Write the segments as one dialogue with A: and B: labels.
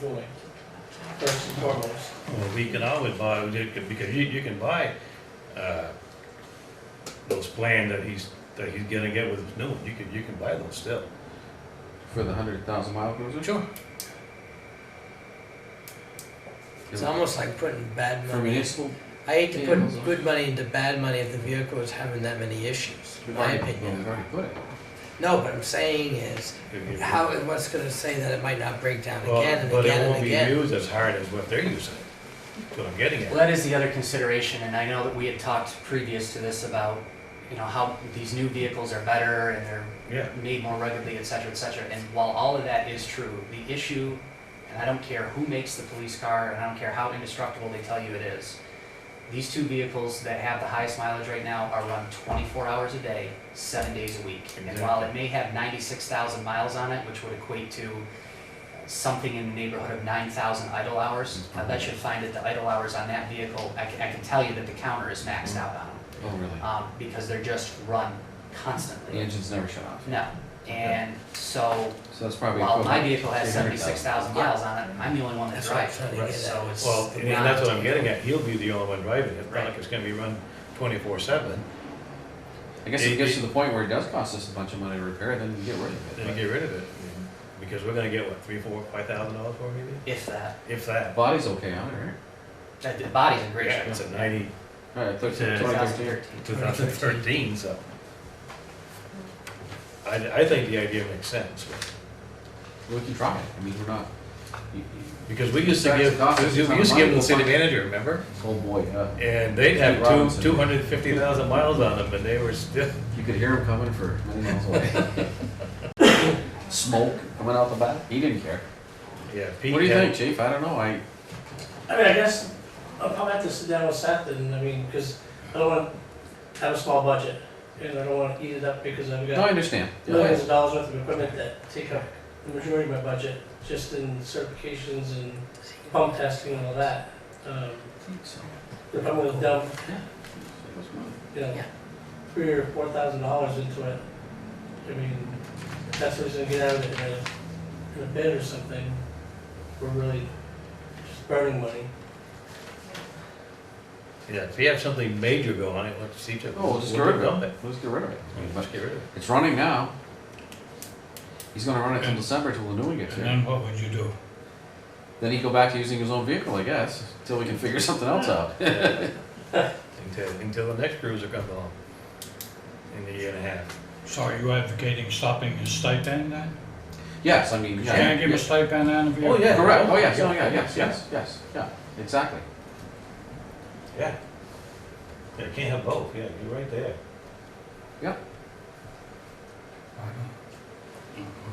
A: doing, first and foremost.
B: Well, we can always buy, we could- because you, you can buy, uh, those plans that he's, that he's gonna get with his new one, you can, you can buy those still.
C: For the hundred thousand mile cruiser?
A: Sure. It's almost like putting bad
C: For
A: money.
C: municipal?
A: I hate to
C: vehicles.
A: put good money into bad money if the vehicle is having that many issues, in my opinion.
C: We've already put it.
A: No, what I'm saying is,
B: If you-
A: how, what's gonna say that it might not break down
B: Well,
A: again and
B: But it
A: again
B: won't
A: and
B: be
A: again?
B: used as hard as what they're using, that's what I'm getting
D: Well,
B: at.
D: that is the other consideration, and I know that we had talked previous to this about, you know, how these new vehicles are better and they're
B: Yeah,
D: made more ruggedly, et cetera, et cetera. And while all of that is true, the issue, and I don't care who makes the police car, and I don't care how indestructible they tell you it is, these two vehicles that have the highest mileage right now are run 24 hours a day, seven days a week. And while it may have 96,000 miles on it, which would equate to something in the neighborhood of 9,000 idle hours, I bet you find that the idle hours on that vehicle, I can, I can tell you that the counter is maxed out on them,
C: Oh, really?
D: um, because they're just run
C: The
D: constantly.
C: engine's never shut off.
D: No, and so,
C: So that's probably.
D: while my
C: equivalent
D: vehicle has
C: to 300,000.
D: seventy-six thousand miles on it, I'm the only one that
A: That's what I'm
D: drives
A: trying to
D: it,
A: get
D: so
A: at.
D: it's.
B: well, and
D: not-
B: that's what I'm getting at, he'll be the only one driving it, it's not like
D: Right.
B: it's gonna be run twenty-four seven,
C: I guess if
B: It-
C: it gets to
B: it-
C: the point where it does cost us a bunch of money to repair it, then you get rid of
B: then you
C: it.
B: get rid of it. Because we're gonna get, what, three, four, five thousand dollars for it maybe,
D: If that,
B: if
C: But
B: that.
C: Body's okay on it, right?
D: that, the body's in great
B: Yeah,
D: shape.
B: it's a ninety,
C: All right,
B: Yeah.
C: thirteen, twenty
D: Thousand
C: thirteen.
D: thirteen.
B: two thousand thirteen, so. I, I think the idea makes sense,
C: We can try it. I mean, we're not. you- you-
B: because we used to
C: That's
B: give,
C: the cost. It's
B: we
C: not
B: used to give
C: mine.
B: them the city manager, remember?
C: Oh, boy, uh,
B: And they'd have two,
C: Robinson.
B: two hundred and fifty thousand miles on them, and they were still,
C: you could hear him coming for many miles away. Smoke coming out the back. He didn't care.
B: yeah. Pete
C: What do you
B: had-
C: think, chief? I don't know. I,
E: I mean, I guess I'll probably have to sit down with Seth and, I mean, because I don't want to have a small budget. And I don't want to eat it up because I've
C: no, I
E: got
C: understand. Yeah,
E: millions
C: I-
E: of dollars worth of equipment that take up the majority of my budget, just in certifications and pump testing and all that. Um, If I'm gonna dump, you know,
A: Yeah.
E: three or four thousand dollars into it, I mean, if that's what he's gonna get out of it in a, in a bid or something, we're really just burning money.
B: Yeah, if you have something major go on it, let's see to.
C: Oh, we'll just get rid of it. Let's get rid of it.
B: Let's get rid of it.
C: It's running now. He's gonna run it till December till the new one gets
F: And
C: here.
F: then what would you do?
C: Then he go back to using his own vehicle, I guess, until we can figure something else out.
B: Until, until the next cruiser comes along in a year and a half.
F: So are you advocating stopping his stipend then?
C: Yes, I mean,
F: You
C: yeah.
F: can't give a stipend on a vehicle?
B: yeah.
C: Correct, oh, yes, oh, yeah, yes, yes, yes, yeah, exactly.
B: Yeah. Yeah, you can't have both, yeah, you're right there. Uh-huh.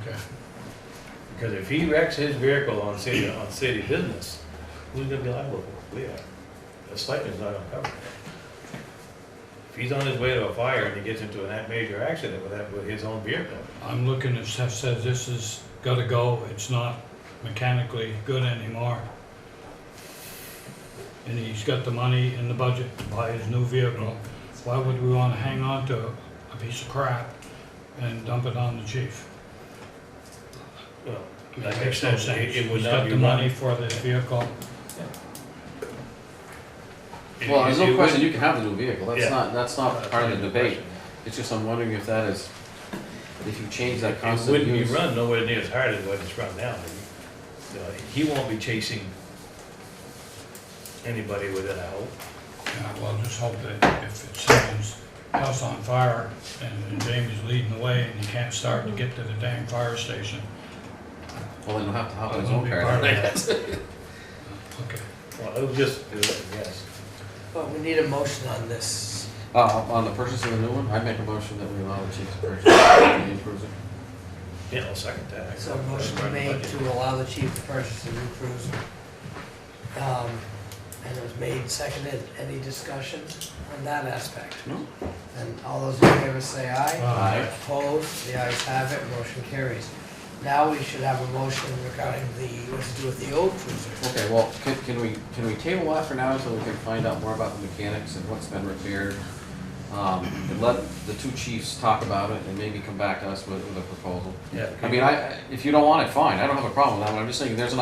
F: Okay.
B: Because if he wrecks his vehicle on city, on city business, who's gonna be liable for it? We are. The stipend's not gonna cover it. If he's on his way to a fire and he gets into a major accident with that, with his own vehicle,
F: I'm looking at Seth says this has gotta go, it's not mechanically good anymore. And he's got the money in the budget to buy his new vehicle. Why would we wanna hang on to a piece of crap and dump it on the chief?
B: well,
F: I mean,
B: That
F: It
B: makes
F: makes no
B: sense. It-
F: sense.
B: it would
F: He's
B: not
F: got
B: be
F: the money for this vehicle.
B: it-
C: Well, there's
B: it-
C: no
B: it
C: question,
B: wouldn't-
C: you can have the new vehicle,
B: Yeah.
C: that's not, that's
B: Uh,
C: not part of the
B: that's a good
C: debate.
B: question.
C: It's just I'm wondering if that is, if you change that
B: It
C: constant
B: wouldn't be
C: use.
B: run nowhere near as hard as what it's run now. You know, He won't be chasing anybody with it, I hope.
F: Yeah, well, just hope that if it's someone's house on fire and Jamie's leading the way and he can't start to get to the dang fire station.
C: Well, then he'll have to hop
F: I
C: on his
F: won't
C: own
F: be
C: car.
F: part of
C: then.
F: that. Okay.
B: Well, it'll just, yes.
A: But we need a motion on this.
C: Uh, on the purchase of the new one, I make a motion that we allow the chief to purchase the new cruiser.
B: Yeah, I'll second that.
A: So a motion made to allow the chief to purchase a new cruiser. Um, And it was made, seconded, any discussion on that aspect?
C: No.
A: And all those in favor say aye.
C: Aye.
A: Opposed, the ayes have it, motion carries. Now we should have a motion regarding the, what to do with the old cruiser.
C: Okay, well, can, can we, can we table that for now until we can find out more about the mechanics and what's been repaired? Um, and let the two chiefs talk about it and maybe come back to us with, with a proposal.
B: Yeah.
C: I mean, I, if you don't want it, fine, I don't have a problem with that, but I'm just saying, there's an